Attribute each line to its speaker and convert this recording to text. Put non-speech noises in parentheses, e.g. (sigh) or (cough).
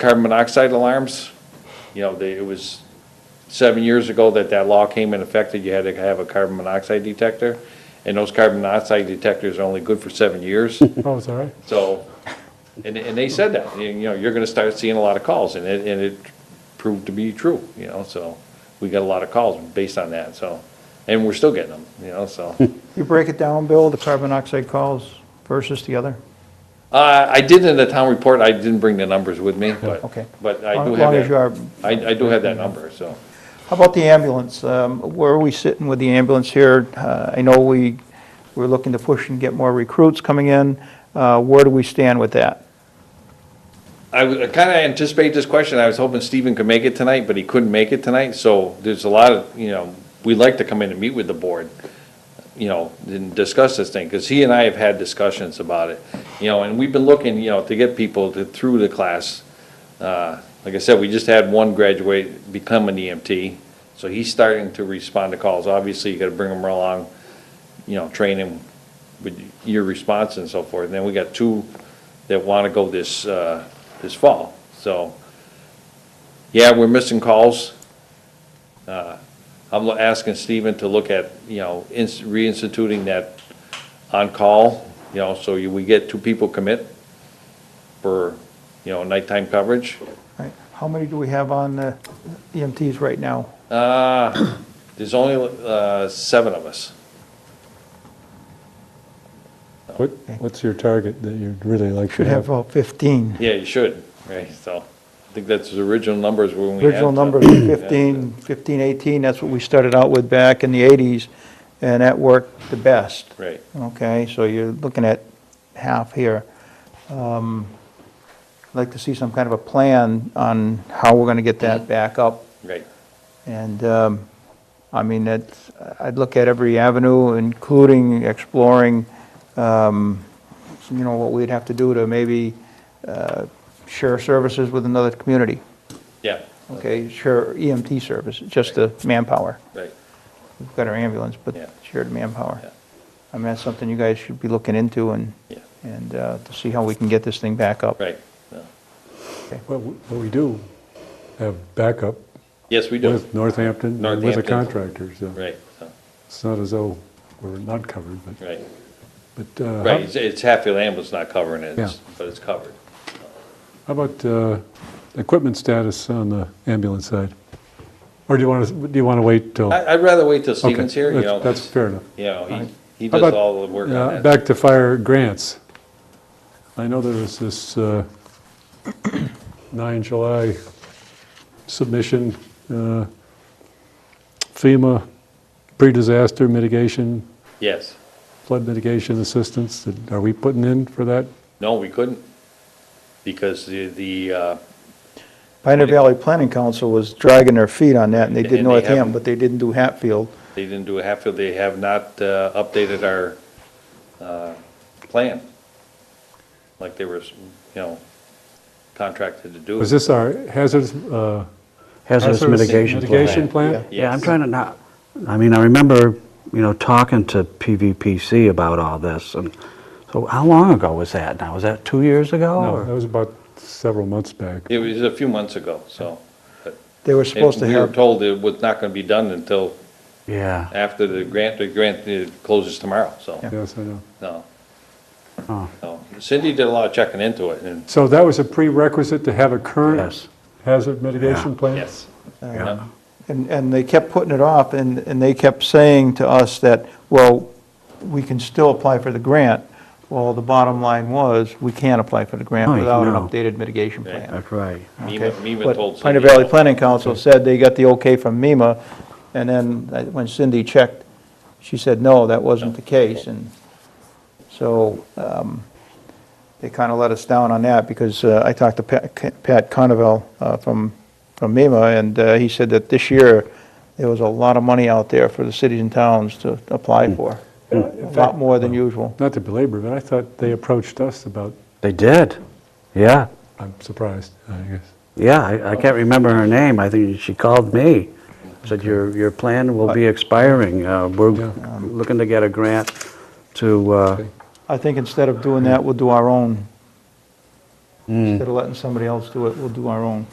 Speaker 1: carbon monoxide alarms, you know, they, it was seven years ago that that law came in effect that you had to have a carbon monoxide detector. And those carbon monoxide detectors are only good for seven
Speaker 2: (laughs)
Speaker 1: years.
Speaker 3: Oh, it's all right.
Speaker 1: So, and, and they said that, you you know, you're gonna start seeing a lot of calls, and it, and it proved to be true, you know, so. We got a lot of calls based on that, so, and we're still getting them, you know,
Speaker 2: (laughs)
Speaker 1: so.
Speaker 2: You break it down, Bill, the carbon monoxide calls versus the other?
Speaker 1: Uh, I did in the town report, I didn't bring the numbers with me, but,
Speaker 2: Okay.
Speaker 1: but I
Speaker 2: As
Speaker 1: do
Speaker 2: long as
Speaker 1: have
Speaker 2: you are-
Speaker 1: that. I, I do have that number, so.
Speaker 2: How about the ambulance? Um, Where are we sitting with the ambulance here? Uh, I know we, we're looking to push and get more recruits coming in. Uh, Where do we stand with that?
Speaker 1: I kind of anticipate this question. I was hoping Stephen could make it tonight, but he couldn't make it tonight. So there's a lot of, you know, we'd like to come in and meet with the board, you know, and discuss this thing, because he and I have had discussions about it. You know, and we've been looking, you know, to get people to, through the class. Uh, Like I said, we just had one graduate become an EMT, so he's starting to respond to calls. Obviously, you got to bring him along, you know, train him with your response and so forth. And then we got two that want to go this, uh, this fall. So, yeah, we're missing calls. Uh, I'm lo- asking Stephen to look at, you know, ins- reinstituting that on-call, you know, so you- we get two people commit for, you know, nighttime coverage.
Speaker 2: Right. How many do we have on uh, EMTs right now?
Speaker 1: Uh, There's only uh, seven of us.
Speaker 3: What, what's your target that you'd really like to
Speaker 2: Should have
Speaker 3: have?
Speaker 2: about 15.
Speaker 1: Yeah, you should, right? So I think that's the original numbers when we had. uh,
Speaker 2: Original
Speaker 1: the- (clears throat)
Speaker 2: numbers were 15, 15, 18, that's what we started out with back in the 80s, and that worked the best.
Speaker 1: Right.
Speaker 2: Okay, so you're looking at half here. Um, I'd like to see some kind of a plan on how we're going to get that back up.
Speaker 1: Right,
Speaker 2: And, um, I mean, that's, I'd look at every avenue, including exploring, um, you know, what we'd have to do to maybe uh, share services with another community.
Speaker 1: yeah,
Speaker 2: Okay, sure, EMT service, just the manpower.
Speaker 1: right.
Speaker 2: We've got our ambulance, but
Speaker 1: Yeah.
Speaker 2: shared manpower.
Speaker 1: Yeah.
Speaker 2: I mean, that's something you guys should be looking into and,
Speaker 1: Yeah.
Speaker 2: and uh, to see how we can get this thing back up.
Speaker 1: Right. no.
Speaker 3: Well, we- well, we do have backup
Speaker 1: Yes, we do.
Speaker 3: with Northampton, and with the
Speaker 1: Northampton.
Speaker 3: contractors. so
Speaker 1: Right, so,
Speaker 3: It's not as though we're not covered, but,
Speaker 1: right,
Speaker 3: but uh,
Speaker 1: right. It's- It's Hatfield ambulance not covering it, it's-
Speaker 3: Yeah.
Speaker 1: but it's covered.
Speaker 3: how about uh, equipment status on the ambulance side? Or do you want to, do you want to wait till?
Speaker 1: I, I'd rather wait till
Speaker 3: Okay,
Speaker 1: Stephen's Uh, here, you
Speaker 3: that's-
Speaker 1: know.
Speaker 3: That's
Speaker 1: it's-
Speaker 3: fair enough.
Speaker 1: You know, he, he
Speaker 3: How
Speaker 1: does
Speaker 3: about-
Speaker 1: all the work
Speaker 3: yeah,
Speaker 1: on that.
Speaker 3: Back to fire grants. I know there was this uh, 9 July submission, uh, FEMA pre-disaster mitigation,
Speaker 1: Yes.
Speaker 3: flood mitigation assistance. that- Are we putting in for that?
Speaker 1: No, we couldn't, because the, the, uh,
Speaker 2: Pioneer Valley Planning Council was dragging their feet on that, and they did
Speaker 1: And they
Speaker 2: Northam,
Speaker 1: haven't.
Speaker 2: but they didn't do Hatfield.
Speaker 1: they didn't do a Hatfield, they have not uh, updated our uh, plan, like they were, you know, contracted to do.
Speaker 3: Was this our hazardous? uh,
Speaker 4: hazardous mitigation plan.
Speaker 3: Mitigation plan?
Speaker 4: Yeah, I'm
Speaker 1: Yes.
Speaker 4: trying to not, I mean, I remember, you know, talking to PVPC about all this, and so how long ago was that now? Was that two years ago?
Speaker 3: No,
Speaker 4: or-
Speaker 3: that was about several months back.
Speaker 1: It was a few months ago, so. but-
Speaker 2: They were supposed to
Speaker 1: And we were
Speaker 2: have,
Speaker 1: told it was not going to be done until
Speaker 4: Yeah,
Speaker 1: after the grant, the grant uh, closes tomorrow, so,
Speaker 3: Yes, I know.
Speaker 1: no.
Speaker 4: Oh.
Speaker 1: No. Cindy did a lot of checking into it, and,
Speaker 3: So that was a prerequisite to have a current
Speaker 4: Yes.
Speaker 3: hazard mitigation plan?
Speaker 1: yes.
Speaker 4: yeah.
Speaker 2: and, and they kept putting it off, and, and they kept saying to us that, well, we can still apply for the grant. Well, the bottom line was, we can't apply for the grant
Speaker 4: Right,
Speaker 2: without an
Speaker 4: no.
Speaker 2: updated mitigation
Speaker 1: Right.
Speaker 2: plan.
Speaker 4: That's right.
Speaker 1: MEMA
Speaker 2: Okay,
Speaker 1: MEMA told Cindy.
Speaker 2: But Pioneer Valley Planning Council said they got the okay from MEMA, and then uh, when Cindy checked, she said, no, that wasn't the case, and so um, they kind of let us down on that, because uh, I talked to Pat Pat Conovel uh, from from MEMA, and uh, he said that this year, there was a lot of money out there for the cities and towns to apply for, a lot more than usual.
Speaker 3: Not to belabor, but I thought they approached us about,
Speaker 4: They did, yeah,
Speaker 3: I'm surprised, I guess.
Speaker 4: yeah, I I can't remember her name, I think she called me, said your, your plan will be expiring, Uh, we're
Speaker 3: Yeah.
Speaker 4: looking to get a grant to, uh,
Speaker 3: Okay.
Speaker 2: I think instead of doing that, we'll do our own Instead of letting somebody else do it, we'll do our own.